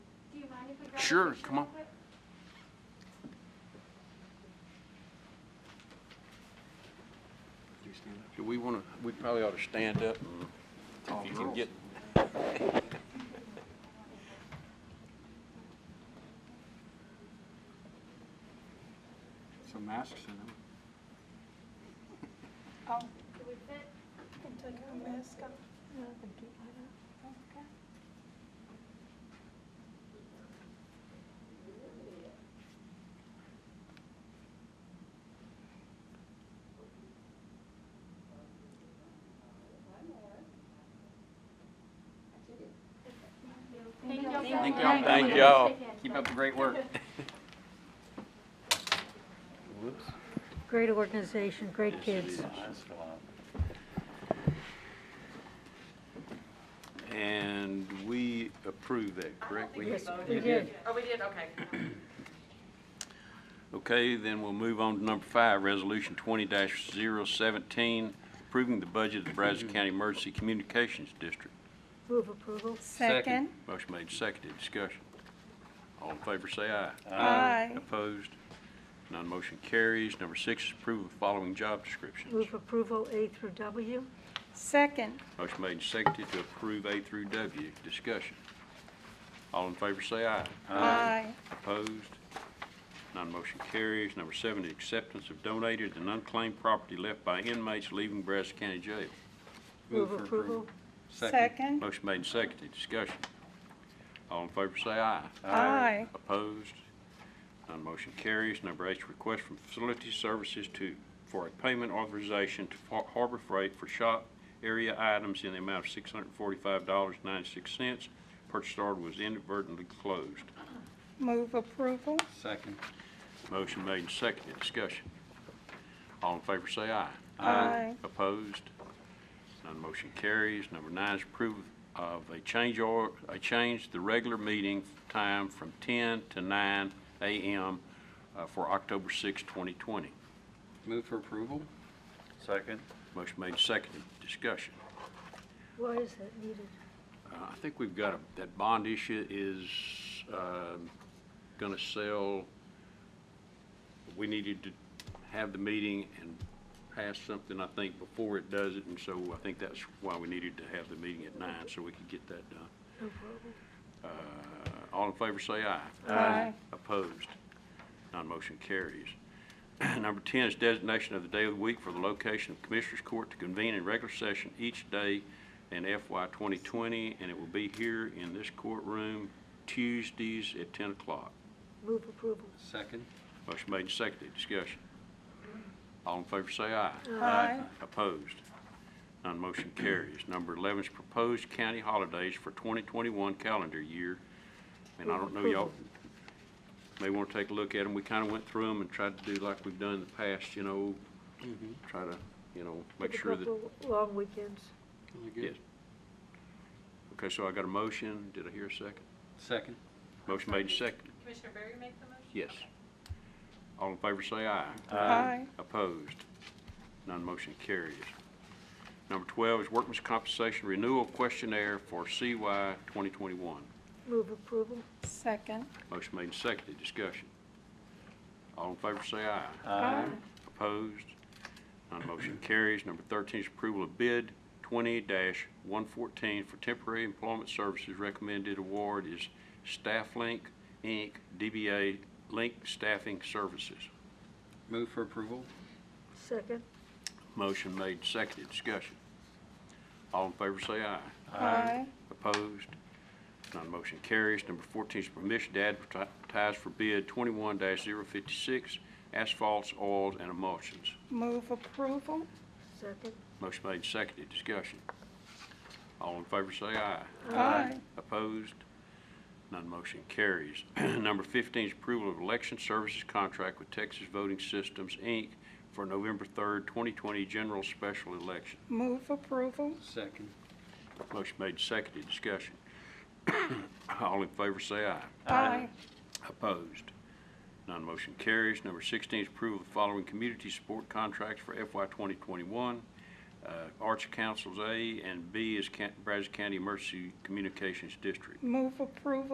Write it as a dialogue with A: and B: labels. A: Sure, come on. Do we want to, we probably ought to stand up and if you can get.
B: Some masks in them.
C: Oh,
D: Do we fit?
C: can take our mask off.
D: Okay. Thank y'all.
B: Thank
D: so
B: y'all.
D: much.
B: Thank
A: y'all.
D: Take care.
B: Keep up the great work.
E: Great organization, great kids.
A: And we approve that, correct?
E: We did.
F: Oh, we did, okay.
A: Okay, then we'll move on to number five, Resolution twenty 17 approving the budget of the Brazos County Emergency Communications District.
E: Move approval.
B: Second.
C: Second.
A: Motion made, seconded, discussion. All in favor, say aye.
C: Aye.
A: Opposed? None motion carries. Number six is approval of the following job descriptions.
E: Move approval A through W.
C: Second.
A: Motion made and seconded to approve A through W. Discussion. All in favor say aye.
C: Aye.
A: Opposed? None motion carries. Number seven, the acceptance of donated and unclaimed property left by inmates leaving Brazos County Jail.
E: Move approval.
C: Second.
A: Motion made and seconded. Discussion. All in favor say aye.
C: Aye.
A: Opposed? None motion carries. Number eight, request from Facility Services to, for a payment authorization to Har- Harbor Freight for shop area items in the amount of $645.96. Purchase order was inadvertently closed.
C: Move approval.
B: Second.
A: Motion made and seconded. Discussion. All in favor say aye.
C: Aye.
A: Opposed? None motion carries. Number nine is approve of a change or, a change the regular meeting time from 10 to 9 a.m. uh, for October 6, 2020.
B: Move for approval?
G: Second.
A: Motion made and seconded. Discussion.
E: Why is that needed?
A: Uh, I think we've got, a- that bond issue is going to sell, we needed to have the meeting and pass something, I think, before it does it, and so I think that's why we needed to have the meeting at nine, so we could get that done.
E: No problem.
A: Uh, All in favor, say aye.
C: Aye.
A: Opposed? Non-motion carries. Number 10 is designation of the day of the week for the location of Commissioners Court to convene in regular session each day in FY 2020, and it will be here in this courtroom Tuesdays at 10 o'clock.
E: Move approval.
B: Second.
A: Motion made and seconded. Discussion. All in favor, say aye.
C: Aye.
A: Opposed? None motion carries. Number 11 is proposed county holidays for 2021 calendar year. And I don't know, y'all may want to take a look at them. We kind of went through them and tried to do like we've done in the past, you know, try to, you know, make
E: With a
A: sure that,
E: couple Long weekends.
A: yes. Okay, so I got a motion. Did I hear a second?
B: Second.
A: Motion made and seconded.
F: Commissioner Berry make the motion?
A: Yes. All in favor, say aye.
C: Aye.
A: Opposed? None motion carries. Number 12 is Workman's Compensation Renewal Questionnaire for CY 2021.
E: Move approval.
C: Second.
A: Motion made and seconded, discussion. All in favor say aye.
C: Aye.
A: Opposed? None motion carries. Number 13 is approval of bid 20-114 for temporary employment services. Recommended award is Stafflink, Inc., DBA Link Staffing Services.
B: Move for approval?
E: Second.
A: Motion made, seconded, discussion. All in favor say aye.
C: Aye.
A: Opposed? None motion carries. Number 14 is permission to advertise for bid 21-056 asphalts, oils, and emulsions.
C: Move approval.
E: Second.
A: Motion made, seconded, discussion. All in favor say aye.
C: Aye.
A: Opposed? None motion carries. Number 15 is approval of election services contract with Texas Voting Systems, Inc. for November 3rd, 2020 general special election.
C: Move approval.
B: Second.
A: Motion made, seconded, discussion. All in favor, say aye.
C: Aye.
A: Opposed? None motion carries. Number 16 is approval of the following community support contracts for FY 2021. Uh, Arts Councils A and B is Can- Brazos County Emergency Communications District.
C: Move approval.